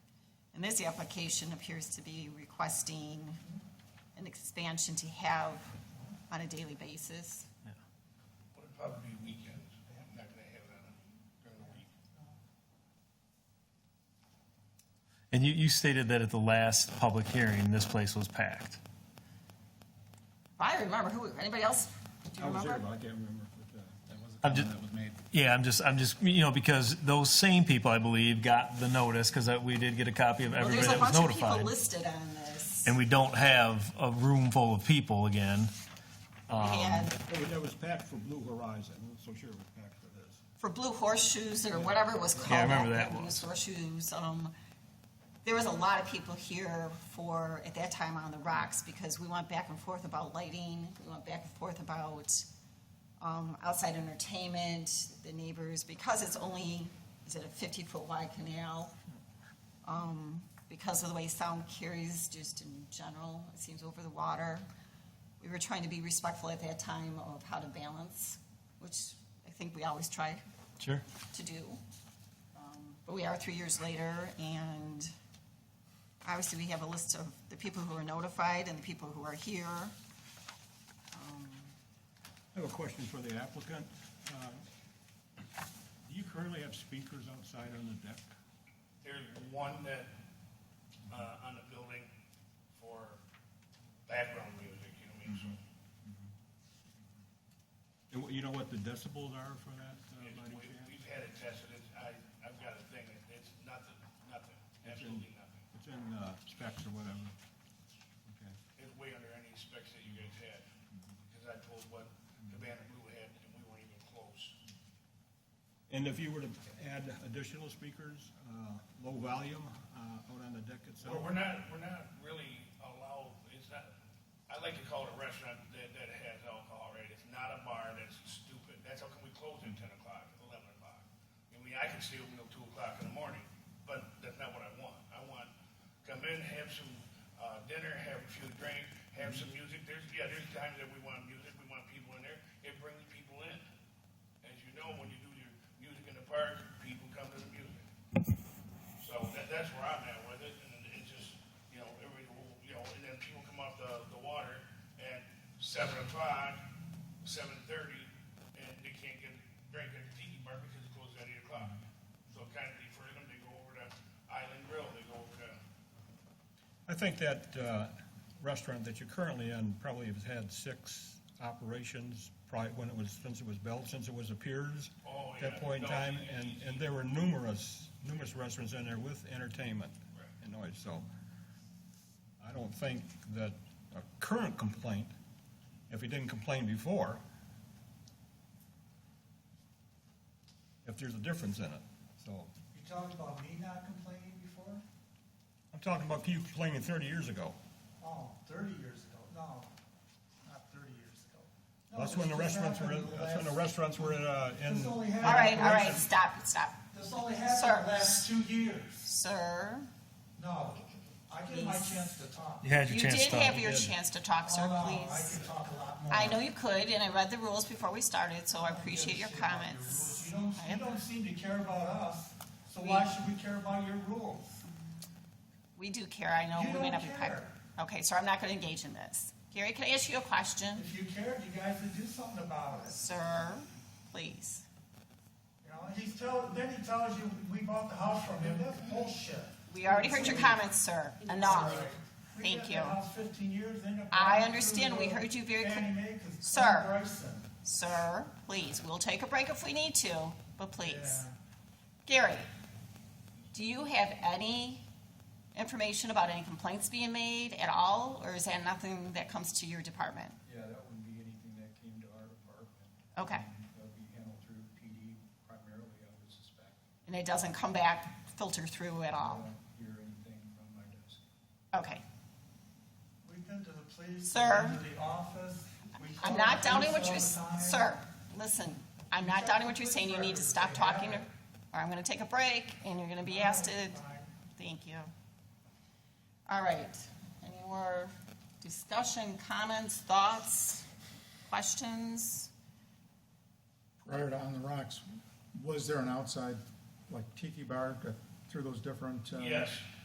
And this application appears to be requesting an expansion to have on a daily basis. But it'd probably be weekends. I'm not gonna have that during the week. And you, you stated that at the last public hearing, this place was packed. If I remember, who, anybody else? Do you I was there, remember? but I can't remember if uh, that was a I'm comment ju- that was made. Yeah, I'm just, I'm just, you know, because those same people, I believe, got the notice, because we did get a copy of Well, everybody there's a that was bunch of people notified. listed on this. And we don't have a room full of people again. Um, And That was- Oh, That was packed for Blue Horizon, I'm not so sure it was packed for this. for Blue Horseshoes or whatever it was called. Yeah, I remember back that then, was. Blue Horseshoes, um, there was a lot of people here for, at that time, on the rocks, because we went back and forth about lighting, we went back and forth about, um, outside entertainment, the neighbors, because it's only, is it a fifty-foot wide canal? Um, because of the way sound carries, just in general, it seems over the water. We were trying to be respectful at that time of how to balance, which I think we always try Sure. to do. Um, But we are three years later, and obviously we have a list of the people who are notified and the people who are here. I have a question for the applicant. Uh, Do you currently have speakers outside on the deck? There's one that, uh, on the building for background music, you know what I mean? So And what- you know what the decibels are for that, uh, it's- by any we- chance? We've had it tested, it's, I, I've got a thing, that it's nothing, nothing, absolutely nothing. It's in uh, specs or whatever. Okay. It's way under any specs that you guys had, because I told what the band of Blue had, and we weren't even close. And if you were to add additional speakers, uh, low volume uh, out on the deck itself? Well, we're not, we're not really allowed, it's not, I like to call it a restaurant that, that has alcohol, right? It's not a bar, that's stupid, that's how come we close at ten o'clock, eleven o'clock? I mean, I can stay open till two o'clock in the morning, but that's not what I want. I want, come in, have some, uh, dinner, have a few drinks, have some music, there's, yeah, there's times that we want music, we want people in there, it brings people in. As you know, when you do your music in the park, people come to the music. So that, that's where I'm at with it, and it's just, you know, every, you know, and then people come off the, the water at seven o'clock, seven thirty, and they can't get, drink at the tiki bar because it closes at eight o'clock. So kind of defer them, they go over to Island Grill, they go over to, I think that uh, restaurant that you're currently in probably has had six operations prior, when it was, since it was built, since it was a Piers. Oh, At yeah. that point in No, time, he- and, and there were numerous, numerous restaurants in there with entertainment Right. and noise, so. I don't think that a current complaint, if he didn't complain before, if there's a difference in it, so. You talked about me not complaining before? I'm talking about you complaining thirty years ago. Oh, thirty years ago, no, not thirty years ago. No, That's when the this just restaurants were, happened in that's when the last- restaurants were uh, This in, only happened. All right, all right, stop, stop. This only Sir. happened in the last two years. Sir, No, I get my chance to talk. You had your you chance did to have talk. your did. chance to talk, sir, Oh, no, I please. can talk a lot more. I know you could, and I read the rules before we started, so I don't give a appreciate your shit about comments. rules. I You don't, am- you don't seem to care about us, so why should we care about your rules? We do care, I know You we may don't not be proper. care. Okay, so I'm not gonna engage in this. Gary, can I ask you a question? If you cared, you guys would do something about it. Sir, please. You know, he's tell, then he tells you, we bought the house from him, that's bullshit. We already heard your comments, sir. Enough. We Thank lived in you. the house 15 years, then the I Brown understand. We Crusoe, heard you very cl- Fannie Mae, 'cause Clem Sir. Bryson. Sir, please, we'll take a break if we need to, but please. Yeah. Gary, do you have any information about any complaints being made at all, or is that nothing that comes to your department? Yeah, that wouldn't be anything that came to our department. Okay. Um, That would be handled through PD primarily, I would suspect. And it doesn't come back, filter through at I all? don't hear anything from my desk. Okay. We've been to the police. Sir. We've been to the office. we I'm called not the doubting what police you're, all the time. sir, listen, I'm not doubting what you're saying. You need to stop talking, or or I'm gonna take a break, and you're gonna be asked to, thank you. All right, any more discussion, comments, thoughts, questions? prior to On the Rocks, was there an outside, like tiki bar, uh, through those different? uh, yes.